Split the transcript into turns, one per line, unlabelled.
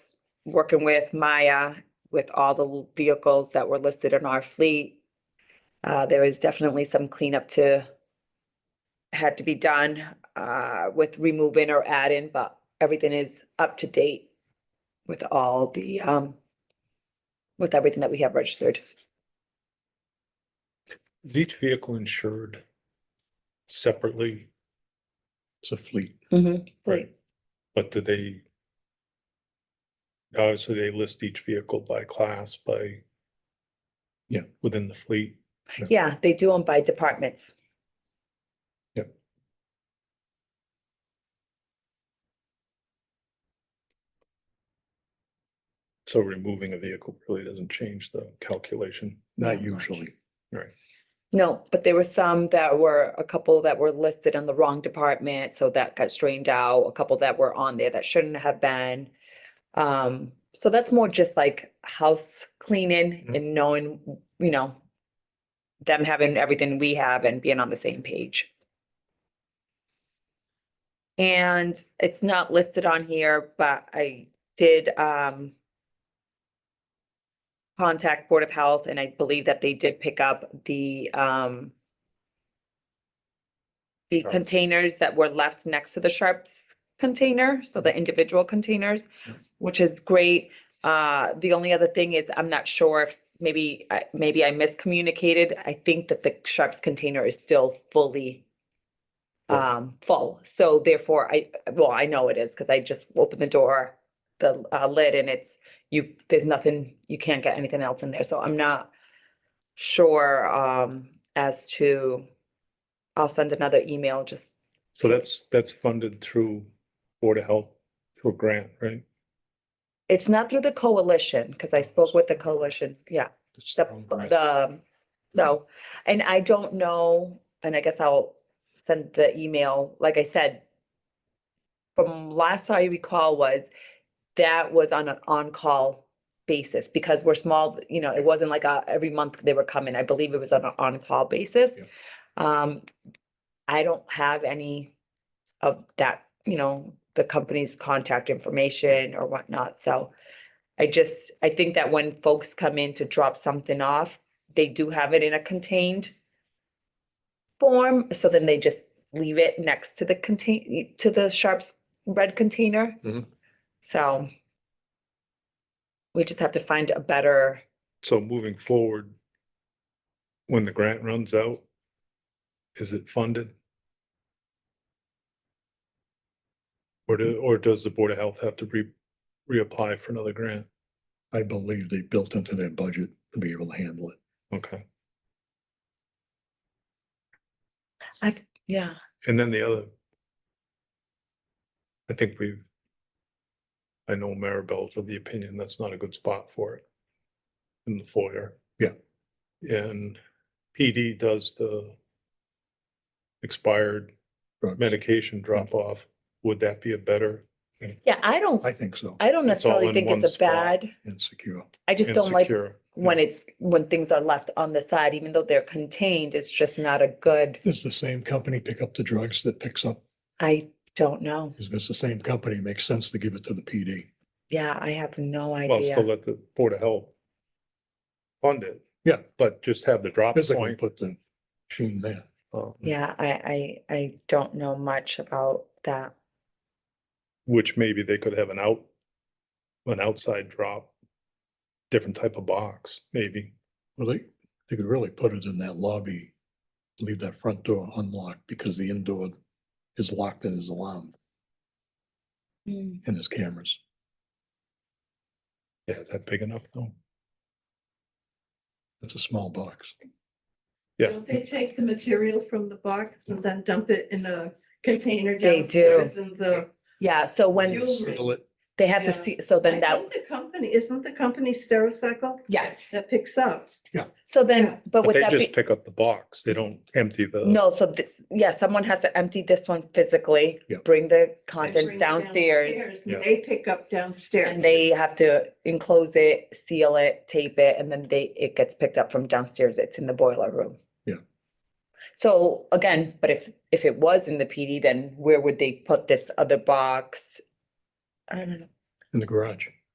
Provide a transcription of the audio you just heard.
working with Maya, with all the vehicles that were listed in our fleet. Uh, there is definitely some cleanup to had to be done, uh, with removing or adding, but everything is up to date with all the, um, with everything that we have registered.
Is each vehicle insured separately,
It's a fleet.
Right.
but do they? Obviously, they list each vehicle by class, by.
Yeah.
Within the fleet.
Yeah, they do them by departments.
Yep.
So removing a vehicle really doesn't change the calculation.
Not
Not
much.
usually.
No, but there were some that were, a couple that were listed on the wrong department, so that got strained out, a couple that were on there that shouldn't have been. Um, so that's more just like house cleaning
Mhm.
and knowing, you know, them having everything we have and being on the same page. And it's not listed on here, but I did, um, contact Board of Health, and I believe that they did pick up the, um, the
Sure.
containers that were left next to the Sharps container, so the individual containers,
Yeah.
which is great. Uh, the only other thing is, I'm not sure, if maybe, I- maybe I miscommunicated. I think that the Sharps container is still fully
Full.
um, full, so therefore I, well, I know it is, because I just opened the door, the uh, lid, and it's you, there's nothing, you can't get anything else in there, so I'm not sure, um, as to, I'll send another email, just,
So that's, that's funded through Board of Health, through a grant, right?
it's not through the coalition, because I spoke with the coalition, yeah,
It's
the,
their own brand.
the, no. And I don't know, and I guess I'll send the email, like I said, from last I recall was, that was on an on-call basis, because we're small, you know, it wasn't like a, every month they were coming, I believe it was on an on-call basis.
Yeah.
Um, I don't have any of that, you know, the company's contact information or whatnot, so I just, I think that when folks come in to drop something off, they do have it in a contained form, so then they just leave it next to the contain, to the Sharps red container.
Mm-hmm.
Mhm.
So we just have to find a better,
So moving forward, when the grant runs out, is it funded? Or do, or does the Board of Health have to re, reapply for another grant?
I believe they built into their budget to be able to handle it.
Okay.
I, yeah,
And then the other. I think we've. I know Maribel's of the opinion that's not a good spot for it. In the foyer.
Yeah.
And PD does the. Expired
Drug.
medication drop off. Would that be a better?
yeah, I don't,
I think so.
I don't
It's all
necessarily
in
think
one
it's a
spot.
bad,
Insecure.
I just
and
don't like
secure?
when it's, when things are left on the side, even though they're contained, it's just not a good,
Does the same company pick up the drugs that picks up?
I don't know.
Is this the same company? Makes sense to give it to the PD.
Yeah, I have no
Well, still
idea.
let the Board of Health. Fund it.
Yeah.
But just have the drop
Physically
point.
put the machine there.
um,
Yeah, I, I, I don't know much about that.
Which maybe they could have an out, an outside drop, different type of box, maybe.
Well, they, they could really put it in that lobby. Leave that front door unlocked because the indoor is locked and is alarmed
Mm.
and there's cameras.
Yeah, is that big enough though?
It's a small box.
Yeah,
Don't they take the material from the box and then dump it in a container
They
downstairs in the?
Yeah, so when
You-
Settle it.
they have to
Yeah.
see, so
I
then that,
think The company, isn't the company Stericycle?
Yes.
That picks up.
so then,
Yeah.
but
but
with
they
that,
just uh,
be-
pick up the box. They don't empty the.
no, so this, yeah, someone has to empty this one physically,
Yeah.
bring the
They
contents
bring it
downstairs.
downstairs
Yeah.
and They pick up
And
downstairs.
they have to enclose it, seal it, tape it, and then they, it gets picked up from downstairs. It's in the boiler room.
Yeah.
So again, but if, if it was in the PD, then where would they put this other box? I don't know.
In the garage.